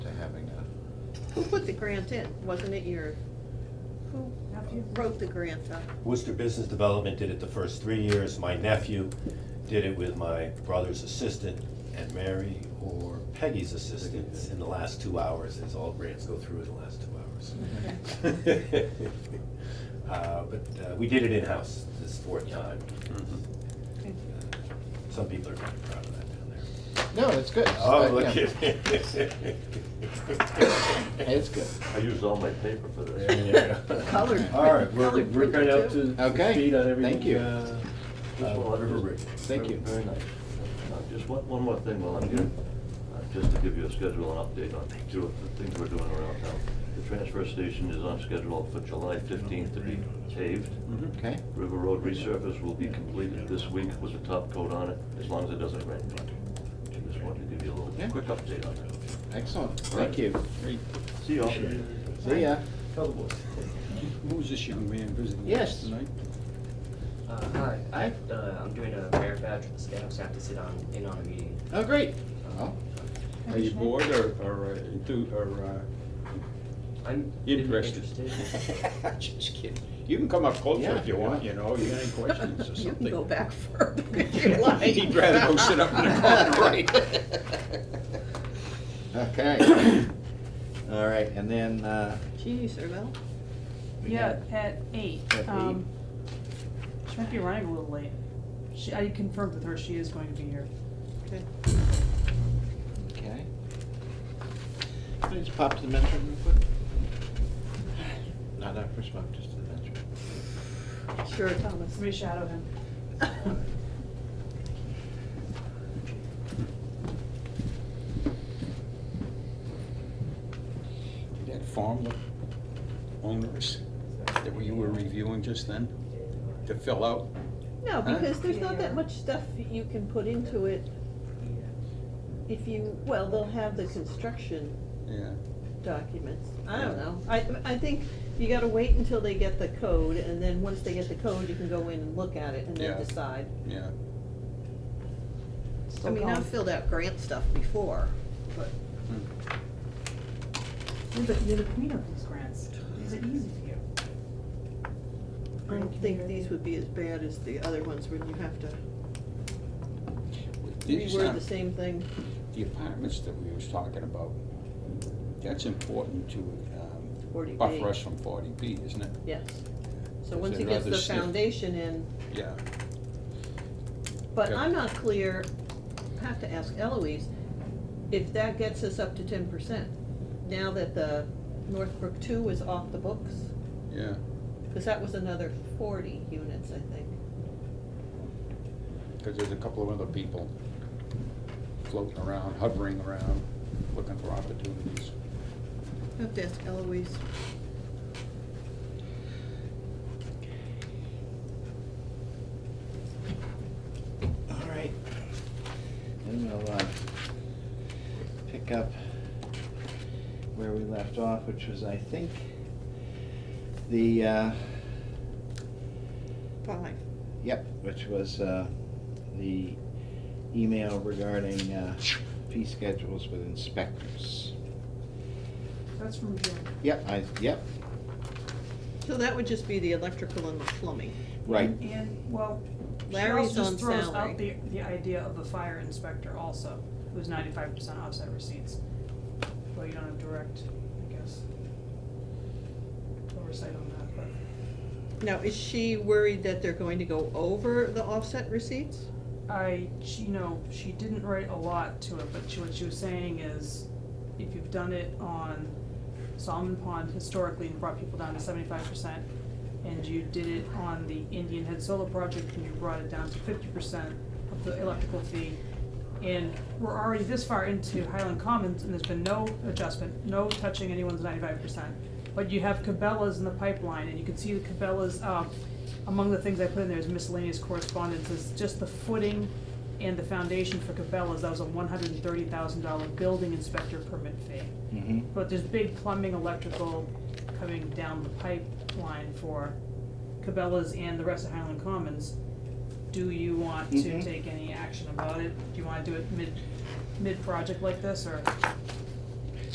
Who put the grant in? Wasn't it your, who wrote the grant up? Worcester Business Development did it the first three years. My nephew did it with my brother's assistant and Mary or Peggy's assistant in the last two hours, as all grants go through in the last two hours. Uh, But uh, we did it in-house this fourth time. Mm-hmm. Uh, Some people are kind of proud of that down there. No, it's good. Oh, Uh, look yeah. at. It's good. I used all my paper for this. Yeah. Colored All right, print- we're, colored we're print, kind of up too. to Okay, speed on everything. thank you. uh, Just uh, one- River just- Ridge. Thank you. Very nice. Uh, Just one, one more thing while I'm here, Uh, just to give you a schedule and update on two of the things we're doing around town. The transfer station is on schedule for July fifteenth to be paved. Mm-hmm. Okay, River Road resurface will be completed this week with a top coat on it, as long as it doesn't rain. Just wanted to give you a Yeah. little quick update on that. excellent. All Thank right. you. See y'all. See ya. Tell the boys. Who was this young man visiting Yes. us tonight? Uh, hi, I, Hi. uh, I'm doing a merit badge with the scouts, I have to sit on, in on a meeting. Oh, great. Oh, Are you bored or, or, uh, enthu- or, uh, I'm Interested. Interested. just kidding. You can come up closer if you want, you know, you got any questions or You can go something. back further if you like. He'd rather go sit up in the corner, right? okay. All right, and then, uh, Jeez, Arvel. we Yeah, have- at eight. At Um, She might be running a little late. She, I confirmed with her, she is going to be here. Okay. okay. Can I just pop to the men's room real quick? No, not first pop, just to the men's room. Sure, Thomas. Somebody shadow him. That farm look owners that we were reviewing just then, to fill out, No, Huh? because there's not that much stuff you can put into it if you, well, they'll have the construction yeah. documents. I don't know. I, I think you gotta wait until they get the code, and then once they get the code, you can go in and look at it and then Yeah. decide. Yeah, I Still mean, gone. I've filled out grant stuff before, but. Hmm. You're the, you're the queen of these grants. These are easy for you. I don't think these would be as bad as the other ones when you have to These reword are- the same thing. the apartments that we was talking about, that's important to, um, 40B. buffer us from forty B, isn't it? Yes. So Is once it he gets rather the stiff? foundation in, Yeah. but Okay. I'm not clear, I have to ask Eloise, if that gets us up to ten percent, now that the Northbrook two is off the books, Yeah, because that was another forty units, I think. because there's a couple of other people floating around, hovering around, looking for opportunities. I have to ask Eloise. All right. Then we'll, uh, pick up where we left off, which was, I think, the, uh, Five. yep, which was, uh, the email regarding, uh, fee schedules with inspectors. That's from June. Yep, I, yep, So that would just be the electrical and the plumbing. right, And- And, well, she Larry's also on just throws salary. out the, the idea of a fire inspector also, who's ninety-five percent offset receipts. Well, you don't have direct, I guess, oversight on that, but. Now, is she worried that they're going to go over the offset receipts? I, she, you know, she didn't write a lot to it, but she, what she was saying is, if you've done it on Solomon Pond historically and brought people down to seventy-five percent, and you did it on the Indian Head Solar Project and you brought it down to fifty percent of the electrical fee, and we're already this far into Highland Commons, and there's been no adjustment, no touching anyone's ninety-five percent. But you have Cabela's in the pipeline, and you can see the Cabela's, uh, among the things I put in there is miscellaneous correspondence, is just the footing and the foundation for Cabela's, that was a one hundred and thirty thousand dollar building inspector permit fee. mhm, But there's big plumbing, electrical coming down the pipeline for Cabela's and the rest of Highland Commons. Do you want to Mhm. take any action about it? Do you wanna do it mid, mid-project like this, or